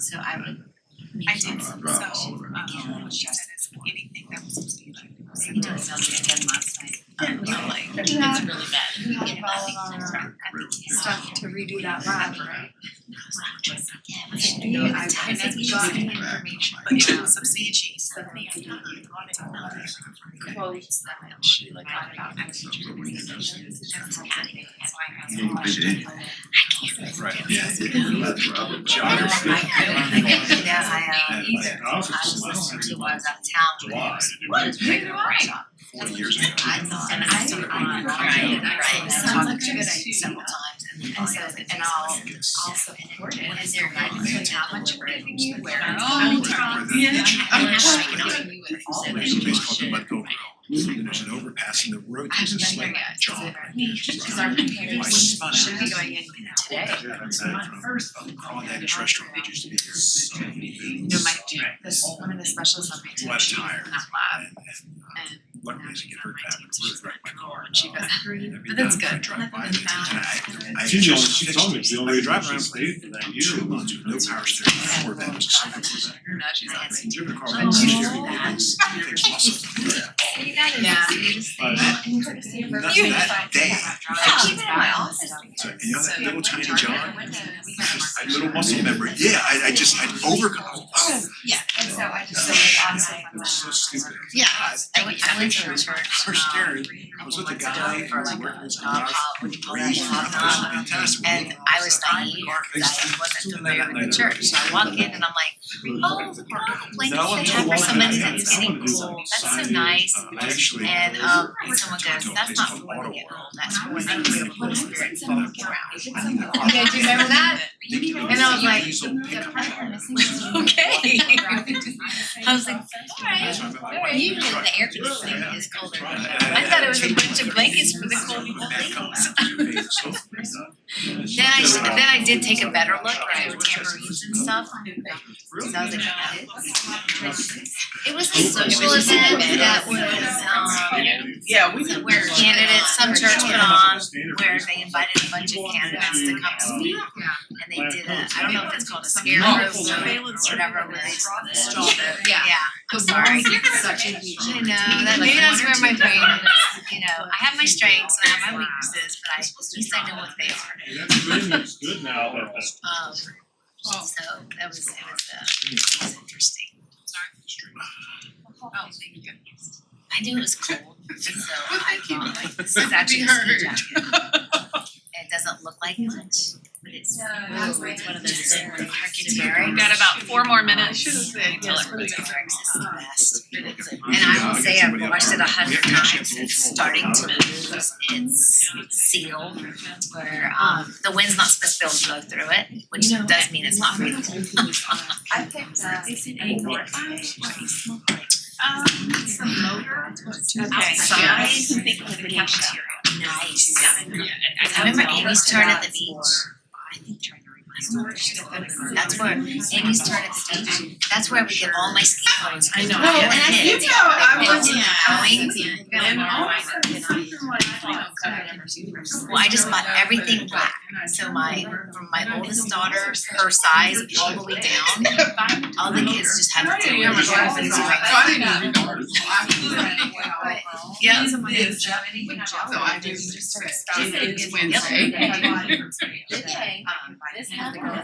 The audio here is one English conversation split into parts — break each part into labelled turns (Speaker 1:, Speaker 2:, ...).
Speaker 1: So I would
Speaker 2: I
Speaker 1: make sure.
Speaker 2: did,
Speaker 3: Uh,
Speaker 2: so,
Speaker 3: I've got all of it.
Speaker 2: um, she said it's anything that was supposed to be like.
Speaker 1: He does me again last night.
Speaker 2: Yeah,
Speaker 1: Um,
Speaker 2: like-
Speaker 1: It's really
Speaker 4: Yeah.
Speaker 1: bad.
Speaker 4: We had to
Speaker 1: Yeah, I
Speaker 4: follow
Speaker 1: think that's right.
Speaker 4: our
Speaker 1: I think he stopped.
Speaker 4: stuff to redo that lab, right?
Speaker 1: Yeah, it was like,
Speaker 4: Yeah,
Speaker 1: no,
Speaker 4: I-
Speaker 1: it's
Speaker 4: I
Speaker 1: times
Speaker 4: think
Speaker 1: like
Speaker 4: we
Speaker 1: you
Speaker 4: got
Speaker 1: just-
Speaker 4: the information.
Speaker 2: But yeah, it was some CHEs.
Speaker 4: So we had to do the audit on that.
Speaker 1: Quotes that I actually like got about my teacher
Speaker 3: But we can just-
Speaker 1: decisions. That's how I did it. That's why I
Speaker 3: You
Speaker 1: was
Speaker 3: did it. Right, yeah. That's probably.
Speaker 1: I don't
Speaker 5: Geography.
Speaker 1: like it. I think that I, uh,
Speaker 5: And
Speaker 1: either.
Speaker 5: I was
Speaker 1: I was
Speaker 5: just
Speaker 1: listening
Speaker 5: last
Speaker 1: to
Speaker 5: year,
Speaker 1: ones out of town.
Speaker 5: July, to do
Speaker 1: What?
Speaker 5: it
Speaker 1: Regular workshop.
Speaker 5: four years ago.
Speaker 1: I thought, and I started on, right,
Speaker 5: Right,
Speaker 1: right,
Speaker 4: right.
Speaker 1: so I talked to
Speaker 4: Sounds like
Speaker 1: it
Speaker 4: a
Speaker 1: several times and then I said, and I'll also support it. What is their guidance on how much we're giving you, where it's coming from?
Speaker 2: Yeah.
Speaker 1: I mean, how I can help you with all of
Speaker 5: There's a place called the
Speaker 1: it.
Speaker 5: Bucko Road, and there's an overpass and the road is just like jog.
Speaker 1: Cause our computers should be going in today.
Speaker 5: Yeah, that's it, from all that is restaurant, it used to be here, so many
Speaker 1: You know,
Speaker 5: booths.
Speaker 1: my, this, one of the specials on my team,
Speaker 5: Wet
Speaker 1: she was
Speaker 5: tire.
Speaker 1: in that lab
Speaker 5: And- and
Speaker 1: and
Speaker 5: Luckily, I get hurt bad, but Ruth wrecked my car.
Speaker 1: she goes, but that's good.
Speaker 5: I drive by it, and I, I.
Speaker 6: She's the only, she told me,
Speaker 5: fixed
Speaker 6: the
Speaker 5: it.
Speaker 6: only
Speaker 5: I
Speaker 6: reason
Speaker 5: drive
Speaker 6: she
Speaker 5: around for
Speaker 6: stayed for that year
Speaker 5: two
Speaker 6: was
Speaker 5: months with no
Speaker 6: because
Speaker 5: power
Speaker 6: of
Speaker 5: steering, four bags of
Speaker 1: Oh,
Speaker 5: stuff.
Speaker 1: now she's on my
Speaker 5: Driven a car.
Speaker 1: Oh,
Speaker 5: Things muscle.
Speaker 1: Yeah.
Speaker 6: that.
Speaker 5: That, that day,
Speaker 1: I keep it in my office.
Speaker 5: so, and you know that little tiny
Speaker 1: So,
Speaker 5: John,
Speaker 1: we got a
Speaker 5: I- little muscle memory, yeah, I, I just, I overcome, oh,
Speaker 4: And so I just
Speaker 5: Yeah.
Speaker 4: said,
Speaker 1: Yeah.
Speaker 4: like,
Speaker 5: it was so stupid.
Speaker 1: Yeah, I went, I went to
Speaker 5: Picture
Speaker 1: a
Speaker 5: of
Speaker 1: church.
Speaker 5: Power
Speaker 1: um,
Speaker 5: steering, I
Speaker 1: couple
Speaker 5: was with the
Speaker 1: months ago
Speaker 5: guy, who
Speaker 1: for
Speaker 5: was
Speaker 1: like
Speaker 5: working as
Speaker 1: a
Speaker 5: a
Speaker 1: non-pop, what do you call that,
Speaker 5: crazy,
Speaker 1: Pop
Speaker 5: that was
Speaker 1: knob?
Speaker 5: fantastic.
Speaker 1: And I was not in New York because I wasn't familiar with the church, so I walk in and I'm like, oh, the purple blankets they have for somebody that's getting cold, that's so nice.
Speaker 5: Um, I actually.
Speaker 1: And um, and someone goes, that's not for when they get old, that's for when they feel the Holy Spirit flooding around.
Speaker 4: Yeah, do you remember that?
Speaker 1: And I was like,
Speaker 4: The part we're missing is-
Speaker 1: Okay. I was like,
Speaker 5: That's
Speaker 1: alright,
Speaker 5: why I'm like,
Speaker 1: alright, usually the air conditioning is colder. I
Speaker 5: I
Speaker 1: thought it was a bunch of blankets for the cold people. Then I, s- then I did take a better look, and there were tambourines and stuff, so I was like, "Oh, It was a social event that was,
Speaker 2: Yeah, we
Speaker 1: um, where candidates, some church put on, where they invited a bunch of candidates to come speak. And they did a, I don't know if it's called a scarecrow survey or whatever, where they draw the straw. Yeah, I'm sorry.
Speaker 4: Such a huge.
Speaker 1: I know, that maybe that's where my brain is, you know, I have my strengths and I have my weaknesses, but I, at least I know what they are.
Speaker 6: That's good, it's good now, but that's.
Speaker 1: Um, so that was, it was, uh, it was interesting.
Speaker 2: Oh, thank you.
Speaker 1: I knew it was cold, and so I
Speaker 2: Thank you.
Speaker 1: thought, like, this is actually a ski
Speaker 2: heard.
Speaker 1: jacket. It doesn't look like much, but it's,
Speaker 4: that's
Speaker 1: oh,
Speaker 4: right.
Speaker 1: it's one of those things where you have to
Speaker 2: We've
Speaker 1: wear it.
Speaker 2: got about four more minutes.
Speaker 1: Should have
Speaker 2: said
Speaker 1: Until everybody wears this the best.
Speaker 5: And
Speaker 1: And
Speaker 5: uh,
Speaker 1: I will say I've watched it a hundred times, it's starting to lose its seal, where, um, the wind's not supposed to be able to blow through it, which
Speaker 4: You know,
Speaker 1: does mean it's not very cold.
Speaker 4: I picked uh
Speaker 1: It's an
Speaker 2: Um, it's a motor.
Speaker 1: Okay, so I think of the cafeteria. Nice. I remember Amy's turn at the beach. I think trying to remember. That's where Amy's turn at the beach, that's where I would get all my ski clothes.
Speaker 4: I know.
Speaker 1: I never
Speaker 4: And I
Speaker 1: did.
Speaker 4: think-
Speaker 1: I wasn't going.
Speaker 2: And all my
Speaker 1: Well, I just bought everything black, so my, from my oldest daughter, her size, all the way down, all the kids just had to.
Speaker 2: Yeah, my glasses
Speaker 1: It's
Speaker 2: are-
Speaker 1: like-
Speaker 2: I didn't
Speaker 1: Yeah.
Speaker 2: It's- So I do
Speaker 4: just
Speaker 2: start
Speaker 1: She said
Speaker 2: It's
Speaker 1: it's-
Speaker 2: Wednesday.
Speaker 4: Today,
Speaker 2: Um,
Speaker 4: this happened.
Speaker 1: And I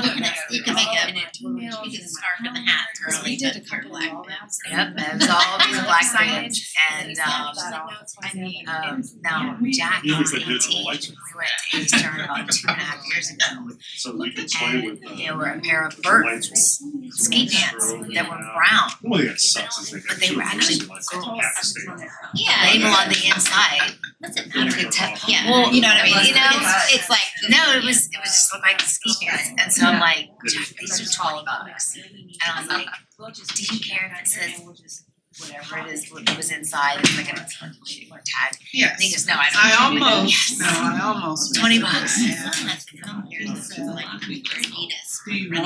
Speaker 1: look
Speaker 2: Yeah.
Speaker 1: next, you can make up and it,
Speaker 4: Emails
Speaker 1: you can
Speaker 4: and
Speaker 1: scarf and the hat, or
Speaker 4: We
Speaker 1: leave
Speaker 4: did
Speaker 1: it.
Speaker 4: a couple acronyms.
Speaker 1: Yep, and it's all these black things, and um,
Speaker 4: I mean,
Speaker 1: um, now Jack
Speaker 6: You know,
Speaker 1: is
Speaker 6: it's like digital
Speaker 1: eighteen, we
Speaker 6: lights.
Speaker 1: went to his turn about two and a half years ago,
Speaker 6: So we can play
Speaker 1: and
Speaker 5: uh,
Speaker 6: with the.
Speaker 1: there were a pair of
Speaker 6: with the lights
Speaker 1: birds, ski pants, that were
Speaker 5: uh,
Speaker 1: brown.
Speaker 6: The only thing that sucks is they got
Speaker 1: But they
Speaker 6: two
Speaker 1: were
Speaker 6: of those
Speaker 1: actually
Speaker 6: in, like,
Speaker 1: girls.
Speaker 6: half the state.
Speaker 1: Yeah, even on the inside, doesn't matter,
Speaker 6: They're
Speaker 1: it's,
Speaker 6: awful.
Speaker 1: yeah, well, you know what I mean, you know, it's, it's
Speaker 4: It's-
Speaker 1: like, no, it was, it was just looked like ski pants, and so I'm like, Jack, these are tall bucks. And I was like, do you care if it says whatever it is, what was inside, it's like a tag. And he goes, no, I
Speaker 2: I
Speaker 1: don't. care." I'm like,
Speaker 2: almost, no,
Speaker 1: "Yes."
Speaker 2: I almost.
Speaker 1: Twenty bucks.
Speaker 2: Yeah. Do you want to?
Speaker 1: They're
Speaker 2: And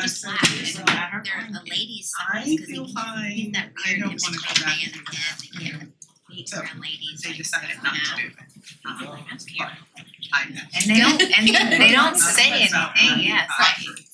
Speaker 2: I
Speaker 1: just
Speaker 2: said,
Speaker 1: black, and they're the ladies'
Speaker 2: I
Speaker 1: size, cause they
Speaker 2: feel
Speaker 1: can't,
Speaker 2: fine.
Speaker 1: he's that
Speaker 2: I
Speaker 1: weird
Speaker 2: don't
Speaker 1: hipster
Speaker 2: wanna go back
Speaker 1: man,
Speaker 2: into
Speaker 1: and they can't meet
Speaker 2: So,
Speaker 1: around ladies,
Speaker 2: They
Speaker 1: like,
Speaker 2: decided not to do that.
Speaker 1: um, I don't care.
Speaker 2: I know.
Speaker 1: And they don't, and they don't say
Speaker 2: That's not
Speaker 1: anything,
Speaker 2: right.
Speaker 1: yes,
Speaker 2: I-